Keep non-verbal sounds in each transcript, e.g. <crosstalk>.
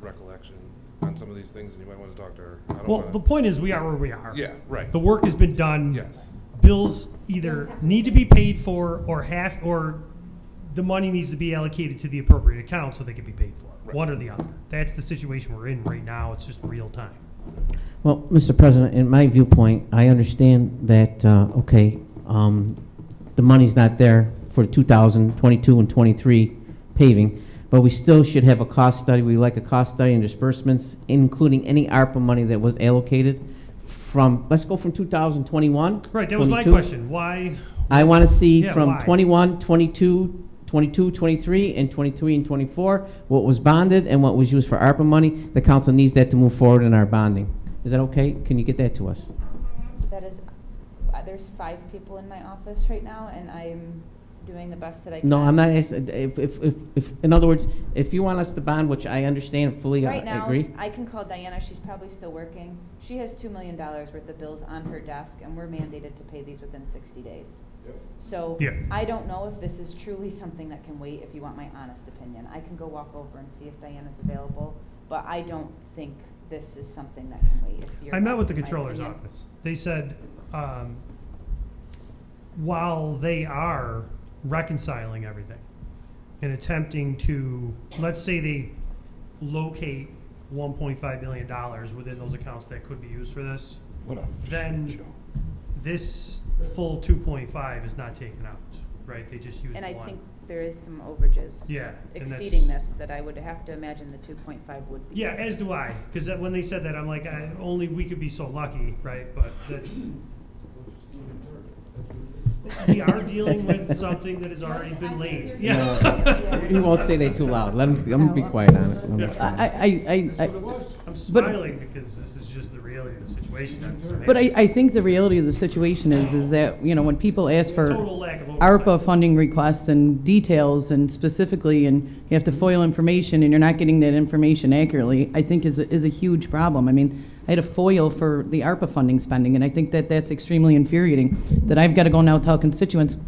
recollection on some of these things, and you might want to talk to her. I don't Well, wanna- the point is, we are where we are. Yeah, right. The work has been done. Yes. Bills either need to be paid for or half, or the money needs to be allocated to the appropriate account so they can be paid for. Right. One or the other. That's the situation we're in right now. It's just real time. Well, Mr. President, in my viewpoint, I understand that, uh, okay, um, the money's not there for 2022 and '23 paving, but we still should have a cost study. We like a cost study and disbursements, including any ARPA money that was allocated from, let's go from 2021. Right, that was my 22. question. Why, I want to see Yeah, from why? 21, 22, 22, 23, and 23 and 24, what was bonded and what was used for ARPA money. The council needs that to move forward in our bonding. Is that okay? Can you get that to us? That is, uh, there's five people in my office right now, and I'm doing the best that I can. No, I'm not, ask- if, if, if, if- in other words, if you want us to bond, which I understand and fully uh, Right now, agree. I can call Diana, she's probably still working. She has two million dollars worth of bills on her desk, and we're mandated to pay these within sixty days. So, Yeah. I don't know if this is truly something that can wait, if you want my honest opinion. I can go walk over and see if Diana's available, but I don't think this is something that can wait, if you're I met with the asking my controller's opinion. office. They said, um, while they are reconciling everything and attempting to, let's say they locate $1.5 million within those accounts that could be used for this, What a Then- shit show. this full 2.5 is not taken out, right? They just use And I think one. there is some overages. Yeah, and that's- Exceeding this, that I would have to imagine the two point five would be. Yeah, as do I, because when they said that, I'm like, I, only we could be so lucky, right? But that's, we are dealing with something that has already been laid. Yeah. No, You won't say that too loud. Let him, I'm gonna be quiet on it. Let 'em be Yeah. quiet. I, I, I, I, <laughs> I'm smiling because this is just the reality of the situation. I'm just but I, mad. I think the reality of the situation is, is that, you know, when people ask Total for lack of oversight. ARPA funding requests and details and specifically, and you have to FOIL information and you're not getting that information accurately, I think is, a- is a huge problem. I mean, I had a FOIL for the ARPA funding spending, and I think that that's extremely infuriating, that I've got to go now tell constituents,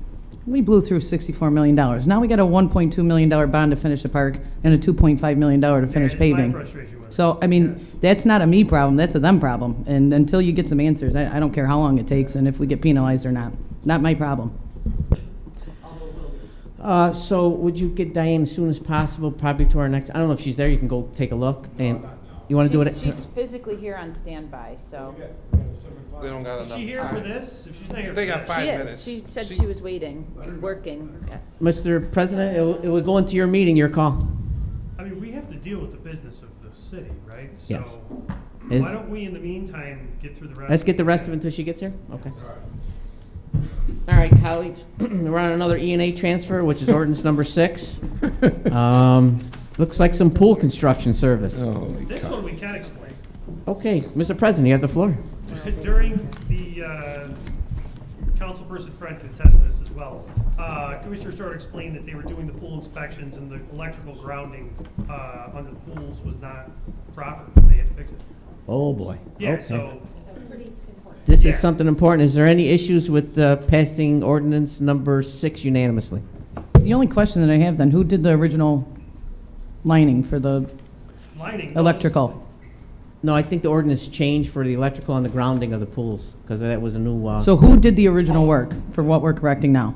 we blew through sixty-four million dollars. Now we got a one point two million dollar bond to finish the park and a two point five million dollar to finish That is my paving. frustration with it. So, I mean, that's not a me problem, that's a them problem. And until you get some answers, I, I don't care how long it takes and if we get penalized or not. Not my problem. Uh, so would you get Diane as soon as possible, probably to our next, I don't know if she's there, you can go take a look and, you wanna do it? She's- She's physically here on standby, so. They don't got Is enough. she here for time. this? If she's not here for They got this- five She minutes. is, she said she was waiting, working. Yeah. Mr. President, it will- it will go into your meeting, your call. I mean, we have to deal with the business of the city, right? Yes. So Is- why don't we, in the meantime, get through the rest? Let's get the rest of it until she gets here? Okay. All right, colleagues, <clears throat> we're on another E and A transfer, which is ordinance number six. Um, Looks like some pool construction service. Oh. This one we can explain. Okay, Mr. President, you have the floor. <laughs> During the, uh, councilperson Fred could attest to this as well, uh, Commissioner Stewart explained that they were doing the pool inspections and the electrical grounding, uh, under the pools was not proper. They had to fix it. Oh, boy. Yeah, Okay. so This yeah. is something important. Is there any issues with uh, passing ordinance number six unanimously? The only question that I have then, who did the original lining for the lining. goes- electrical? No, I think the ordinance changed for the electrical and the grounding of the pools, because that was a new, uh, So who did the original work for what we're correcting now?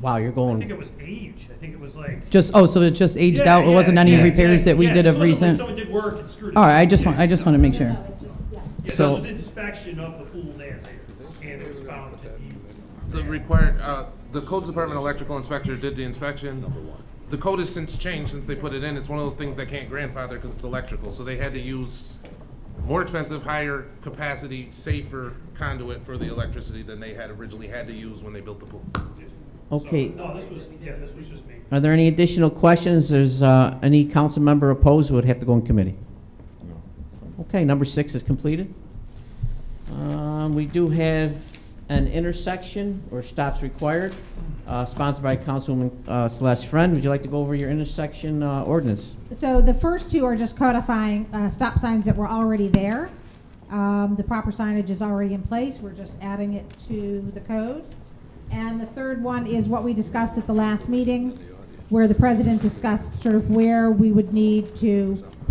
wow, you're I think going, it was age. I think it was like. Just, oh, so it just aged Yeah, out, it wasn't yeah, any yeah, repairs that we yeah, did this wasn't of like recent? Someone did work and screwed it. All right, I up. just want, Yeah. I just want to make sure. Yeah, this so- was inspection of the pools as is, and it was found to be. The required, uh, the codes department electrical inspector did the inspection. The code has since changed since they put it in. It's one of those things they can't grandfather because it's electrical, so they had to use more expensive, higher capacity, safer conduit for the electricity than they had originally had to use when they built the pool. okay. No, this was, uh, yeah, this was just me. Are there any additional questions? There's uh, any council member opposed would have to go in committee? Okay, number six is completed. Um, We do have an intersection or stops required, uh, sponsored by Councilwoman uh, Celeste Friend. Would you like to go over your intersection uh, ordinance? So the first two are just codifying uh, stop signs that were already there. Um, The proper signage is already in place, we're just adding it to the code. And the third one is what we discussed at the last meeting, where the president discussed sort of where we would need to